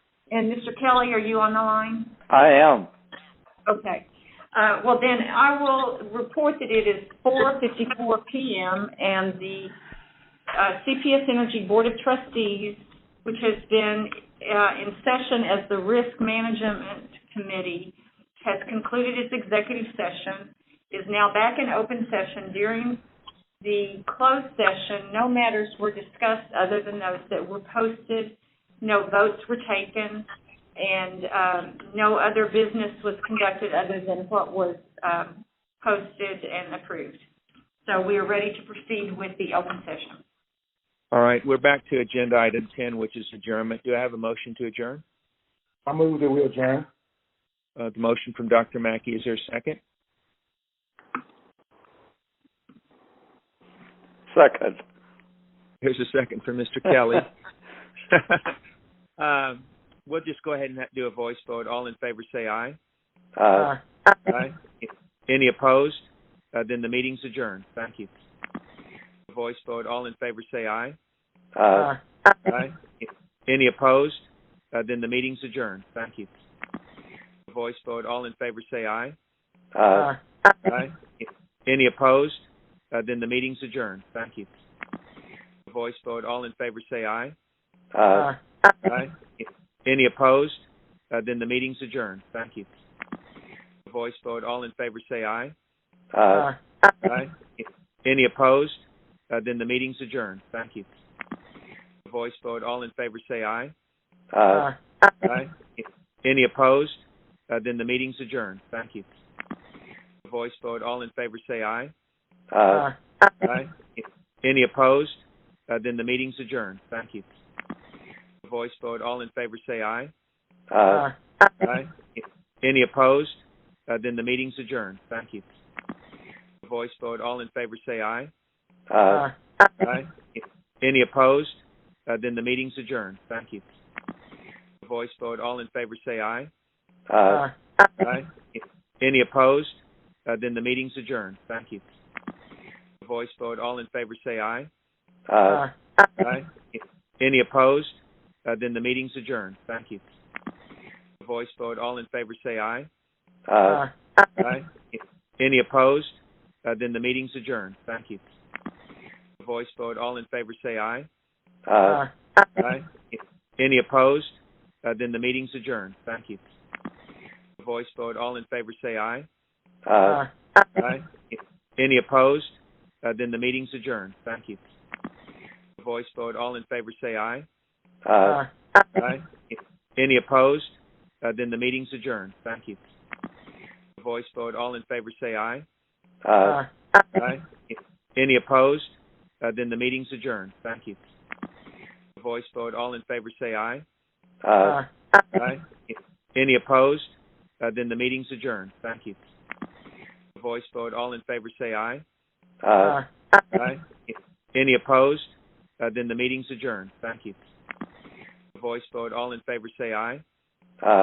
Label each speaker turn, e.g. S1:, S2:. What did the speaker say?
S1: And Mr. Kelly, are you on the line?
S2: I am.
S1: Okay. Uh, Well, then I will report that it is 4:54 PM and the uh, CPS Energy Board of Trustees, which has been uh, in session as the Risk Management Committee, has concluded its executive session, is now back in open session. During the closed session, no matters were discussed other than those that were posted, no votes were taken, and um, no other business was conducted other than what was um, posted and approved. So we are ready to proceed with the open session.
S2: All right, we're back to agenda item 10, which is adjournment. Do I have a motion to adjourn?
S3: I move that we adjourn.
S2: Uh, the motion from Dr. Mackey, is there a second?
S4: Second.
S2: Here's a second from Mr. Kelly. um, we'll just go ahead and do a voice vote. All in favor say aye.
S4: Uh,
S2: Aye. Any opposed? Uh, then the meeting's adjourned. Thank you. Voice vote. All in favor say aye.
S4: uh,
S2: Aye. Any opposed? Uh, then the meeting's adjourned. Thank you. Voice vote. All in favor say aye.
S4: uh,
S2: Aye. Any opposed? Uh, then the meeting's adjourned. Thank you. Voice vote. All in favor say aye.
S4: uh.
S2: Aye. Any opposed? Uh, then the meeting's adjourned. Thank you. Voice vote. All in favor say aye.
S4: Uh,
S2: Aye. Any opposed? Uh, then the meeting's adjourned. Thank you. Voice vote. All in favor say aye.
S4: uh,
S2: Aye. Any opposed? Uh, then the meeting's adjourned. Thank you. Voice vote. All in favor say aye.
S4: uh,
S2: Aye. Any opposed? Uh, then the meeting's adjourned. Thank you. Voice vote. All in favor say aye.
S4: uh,
S2: Aye. Any opposed? Uh, then the meeting's adjourned. Thank you. Voice vote. All in favor say aye.
S4: uh.
S2: Aye. Any opposed? Uh, then the meeting's adjourned. Thank you. Voice vote. All in favor say aye.
S4: Uh,
S2: Aye. Any opposed? Uh, then the meeting's adjourned. Thank you. Voice vote. All in favor say aye.
S4: uh,
S2: Aye. Any opposed? Uh, then the meeting's adjourned. Thank you. Voice vote. All in favor say aye.
S4: uh,
S2: Aye. Any opposed? Uh, then the meeting's adjourned. Thank you. Voice vote. All in favor say aye.
S4: uh.
S2: Aye. Any opposed? Uh, then the meeting's adjourned. Thank you. Voice vote. All in favor say aye.
S4: Uh,
S2: Aye. Any opposed? Uh, then the meeting's adjourned. Thank you. Voice vote. All in favor say aye.
S4: uh.
S2: Aye. Any opposed? Uh, then the meeting's adjourned. Thank you. Voice vote. All in favor say aye.
S4: Uh.
S2: Aye. Any opposed? Uh, then the meeting's adjourned. Thank you. Voice vote. All in favor say aye.
S4: Uh.
S2: Aye. Any opposed? Uh, then the meeting's adjourned. Thank you. Voice vote. All in favor say aye.
S4: Uh.
S2: Aye. Any opposed? Uh, then the meeting's adjourned. Thank you. Voice vote. All in favor say aye.
S4: Uh.